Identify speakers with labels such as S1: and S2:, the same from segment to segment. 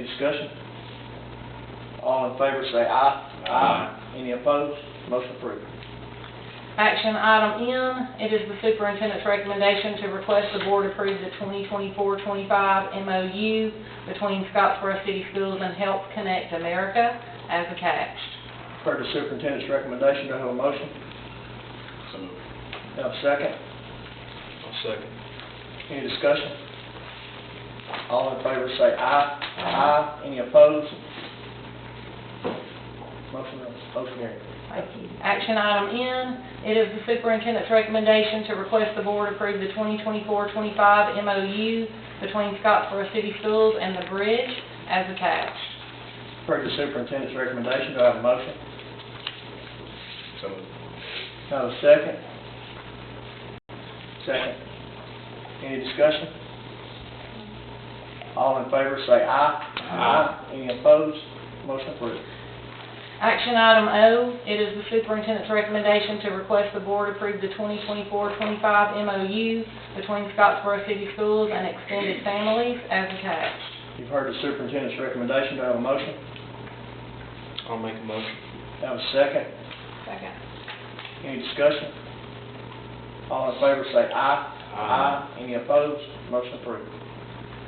S1: discussion? All in favor, say aye.
S2: Aye.
S1: Any opposed? Motion approved.
S3: Action item N, it is the superintendent's recommendation to request the board approve the 2024-25 MOU between Scottsboro City Schools and Health Connect America as attached.
S1: Heard the superintendent's recommendation, do I have a motion?
S2: So moved.
S1: Do I have a second?
S2: I'll second.
S1: Any discussion? All in favor, say aye.
S2: Aye.
S1: Any opposed? Motion, motion carried.
S3: Thank you. Action item N, it is the superintendent's recommendation to request the board approve the 2024-25 MOU between Scottsboro City Schools and The Bridge as attached.
S1: Heard the superintendent's recommendation, do I have a motion?
S2: So moved.
S1: Do I have a second? Second. Any discussion? All in favor, say aye.
S2: Aye.
S1: Any opposed? Motion approved.
S3: Action item O, it is the superintendent's recommendation to request the board approve the 2024-25 MOU between Scottsboro City Schools and Extended Families as attached.
S1: You've heard the superintendent's recommendation, do I have a motion?
S2: I'll make a motion.
S1: Do I have a second?
S3: Second.
S1: Any discussion? All in favor, say aye.
S2: Aye.
S1: Any opposed? Motion approved.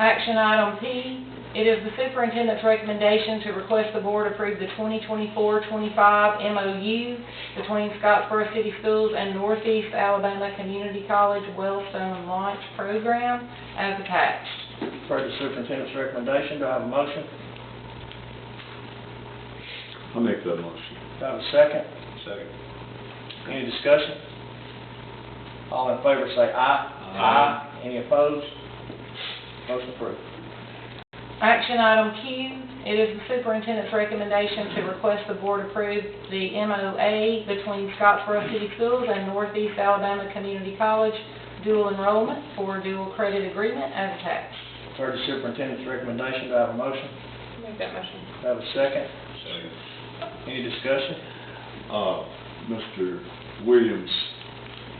S3: Action item P, it is the superintendent's recommendation to request the board approve the 2024-25 MOU between Scottsboro City Schools and Northeast Alabama Community College Wellstone Launch Program as attached.
S1: Heard the superintendent's recommendation, do I have a motion?
S4: I'll make that motion.
S1: Do I have a second?
S2: Second.
S1: Any discussion? All in favor, say aye.
S2: Aye.
S1: Any opposed? Motion approved.
S3: Action item Q, it is the superintendent's recommendation to request the board approve the MOA between Scottsboro City Schools and Northeast Alabama Community College dual enrollment for dual credit agreement as attached.
S1: Heard the superintendent's recommendation, do I have a motion?
S3: Make that motion.
S1: Do I have a second?
S2: Second.
S1: Any discussion?
S4: Uh, Mr. Williams,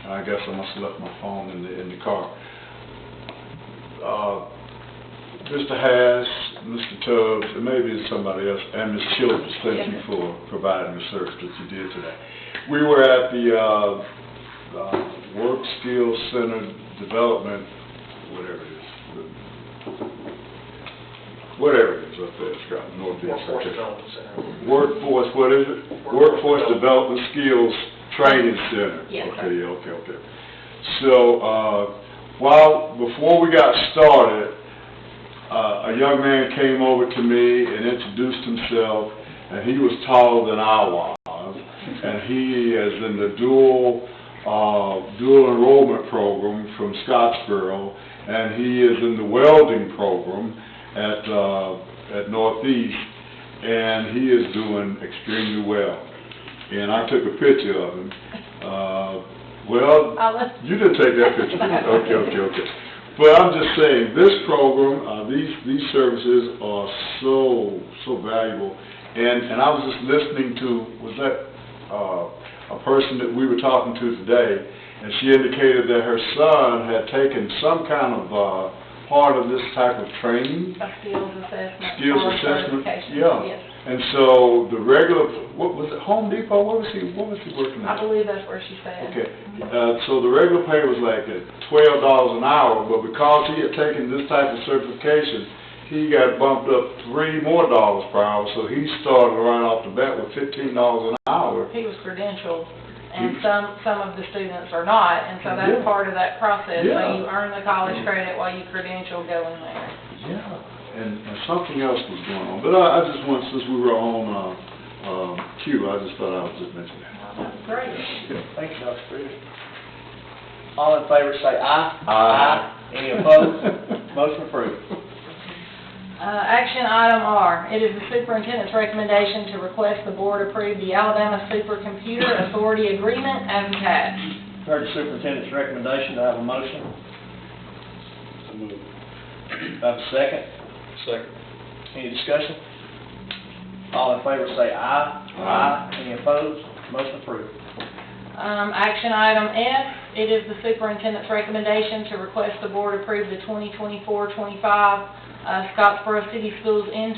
S4: I guess I must have left my phone in the, in the car. Uh, Mr. Haas, Mr. Tubbs, and maybe it's somebody else, and Ms. Childers, thank you
S3: Yes.
S4: for providing the service that you did today. We were at the, uh, uh, Work Skills Center Development, whatever it is. the- Whatever it is up there, it's got northeast.
S2: Workforce Development Center.
S4: Workforce, what is it? Workforce Development Skills Training Center.
S3: Yes, sir.
S4: Okay, okay, okay. So, uh, while, before we got started, uh, a young man came over to me and introduced himself, and he was taller than I was. And he is in the dual, uh, dual enrollment program from Scottsboro, and he is in the welding program at, uh, at Northeast, and he is doing extremely well. And I took a picture of him. Uh, well,
S3: I'll let,
S4: you didn't take that picture, did you? Okay, okay, okay. But I'm just saying, this program, uh, these, these services are so, so valuable. And, and I was just listening to, was that, uh, a person that we were talking to today, and she indicated that her son had taken some kind of, uh, part of this type of training.
S3: a skills assessment.
S4: Skills
S3: or
S4: assessment,
S3: certification.
S4: yeah.
S3: Yes.
S4: And so the regular, what was it, Home Depot, what was he, what was he working
S3: I
S4: at?
S3: believe that's where she said. Mm-hmm.
S4: Okay, uh, so the regular pay was like at twelve dollars an hour, but because he had taken this type of certification, he got bumped up three more dollars per hour, so he started right off the bat with fifteen dollars an hour.
S3: He was credentialed, and
S4: He-
S3: some, some of the students are not, and so that's
S4: Yeah.
S3: part of that process. So
S4: Yeah.
S3: you earn the college credit while you credential go in there.
S4: Yeah. And, and something else was going on, but I, I just want, since we were on, uh, um, cue, I just thought I would just mention that.
S3: Great.
S1: Thank you, Dr. Freeman. All in favor, say aye.
S4: Aye.
S1: Any opposed? Motion approved.
S3: Uh, Action item R, it is the superintendent's recommendation to request the board approve the Alabama Supercomputer Authority Agreement as attached.
S1: Heard the superintendent's recommendation, do I have a motion?
S2: So moved.
S1: Do I have a second?
S2: Second.
S1: Any discussion? All in favor, say aye.
S4: Aye.
S1: Any opposed? Motion approved.
S3: Um, Action item F, it is the superintendent's recommendation to request the board approve the 2024-25 uh, Scottsboro City Schools intern